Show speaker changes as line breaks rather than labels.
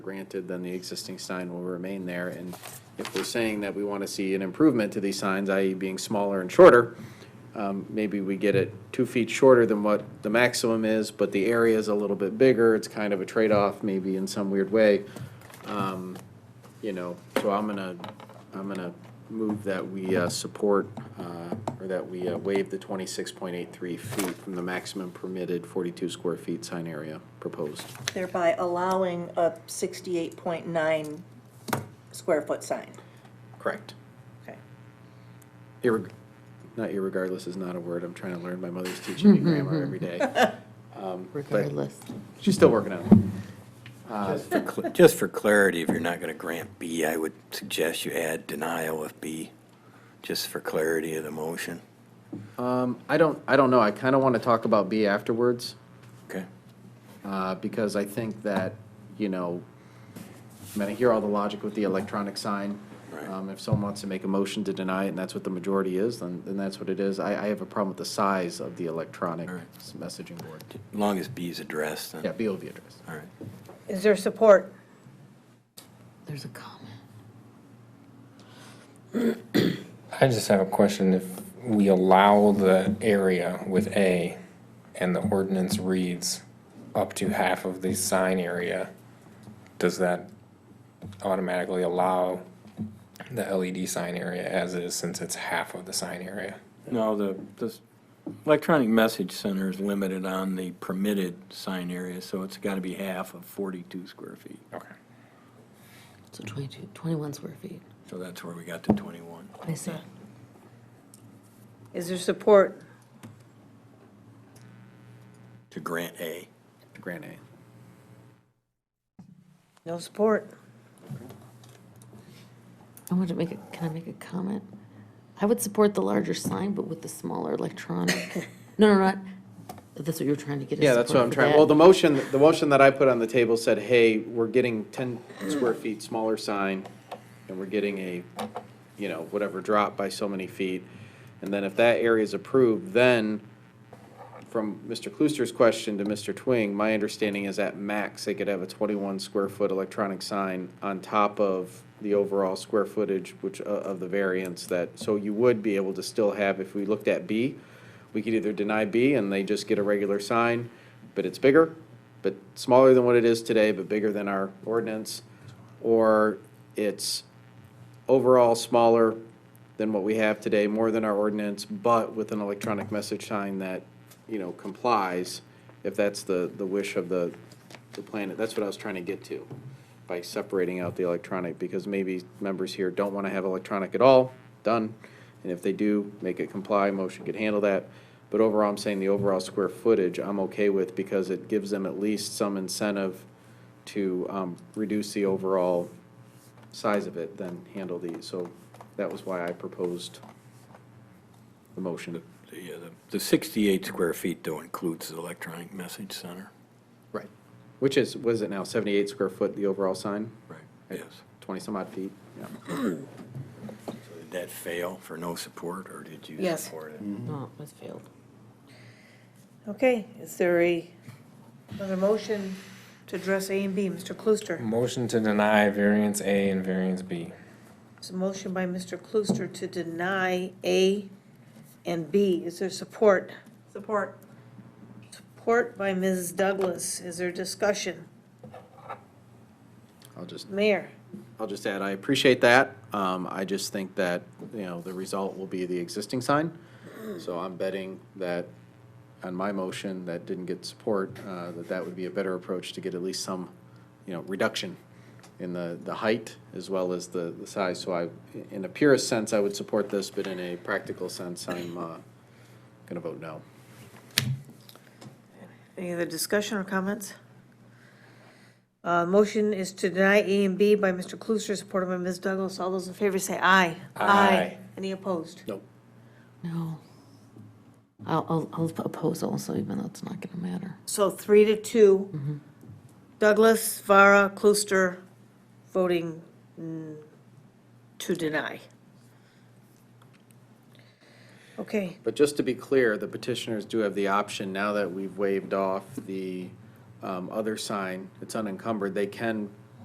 granted, then the existing sign will remain there. And if we're saying that we want to see an improvement to these signs, i.e. being smaller and shorter, um, maybe we get it two feet shorter than what the maximum is, but the area is a little bit bigger. It's kind of a trade-off maybe in some weird way. Um, You know, so I'm gonna, I'm gonna move that we uh, support, uh, or that we uh, waive the 26.83 feet from the maximum permitted 42 square feet sign area proposed.
thereby allowing a sixty-eight point nine square foot sign.
Correct.
Okay.
Irreg- not irregardless is not a word. I'm trying to learn. My mother's teaching me grammar every day.
regardless.
She's still working on it.
For cl- Just for clarity, if you're not going to grant B, I would suggest you add denial of B, just for clarity of the motion.
I don't, I don't know. I kind of want to talk about B afterwards.
Okay?
uh, because I think that, you know, I mean, I hear all the logic with the electronic sign.
Right.
Um, If someone wants to make a motion to deny it, and that's what the majority is, then, then that's what it is. I, I have a problem with the size of the electronic
All right.
s- messaging board.
As long as B is addressed, then.
Yeah, BOV address.
All right.
Is there support?
There's a comment.
I just have a question. If we allow the area with A and the ordinance reads up to half of the sign area, does that automatically allow the LED sign area as is since it's half of the sign area?
No, the, this electronic message center is limited on the permitted sign area, so it's got to be half of 42 square feet.
Okay.
So 22, 21 square feet.
So that's where we got to 21.
I see.
Is there support?
To grant A.
Grant A.
No support?
I want to make a, can I make a comment? I would support the larger sign, but with the smaller electronic. No, no, not, that's what you were trying to get us.
Yeah, that's what I'm trying, well, the motion, the motion that I put on the table said, hey, we're getting ten square feet smaller sign, and we're getting a, you know, whatever drop by so many feet. And then if that area is approved, then, from Mr. Klooster's question to Mr. Twing, my understanding is at max, they could have a twenty-one square foot electronic sign on top of the overall square footage, which, uh, of the variance that, so you would be able to still have, if we looked at B, we could either deny B and they just get a regular sign, but it's bigger, but smaller than what it is today, but bigger than our ordinance, or it's overall smaller than what we have today, more than our ordinance, but with an electronic message sign that, you know, complies, if that's the, the wish of the, the planet. That's what I was trying to get to by separating out the electronic, because maybe members here don't want to have electronic at all, done. And if they do, make it comply, motion could handle that. But overall, I'm saying the overall square footage, I'm okay with, because it gives them at least some incentive to, um, reduce the overall size of it than handle these, so that was why I proposed the motion.
Yeah, the- the 68 square feet, though, includes the electronic message center.
Right. Which is, what is it now, seventy-eight square foot, the overall sign?
Right.
At
Yes.
Twenty-some odd feet, yeah.
So Did that fail for no support, or did you
Yes.
support it?
No, it's failed.
Okay, is there a, another motion to address A and B, Mr. Klooster?
Motion to deny variance A and variance B.
It's a motion by Mr. Klooster to deny A and B. Is there support? Support. Support by Ms. Douglas. Is there discussion?
I'll just,
Mayor?
I'll just add, I appreciate that, um, I just think that, you know, the result will be the existing sign. So I'm betting that on my motion that didn't get support, uh, that that would be a better approach to get at least some, you know, reduction in the, the height as well as the, the size. So I, in a purist sense, I would support this, but in a practical sense, I'm, uh, gonna vote no.
Any other discussion or comments? Uh, Motion is to deny A and B by Mr. Klooster, supported by Ms. Douglas. All those in favor say aye.
Aye.
Any opposed?
Nope.
No. I'll, I'll, I'll oppose also, even though it's not going to matter.
So three to two. Douglas, Vara, Klooster voting mm, to deny. Okay,
But just to be clear, the petitioners do have the option, now that we've waived off the um, other sign, it's unencumbered, they can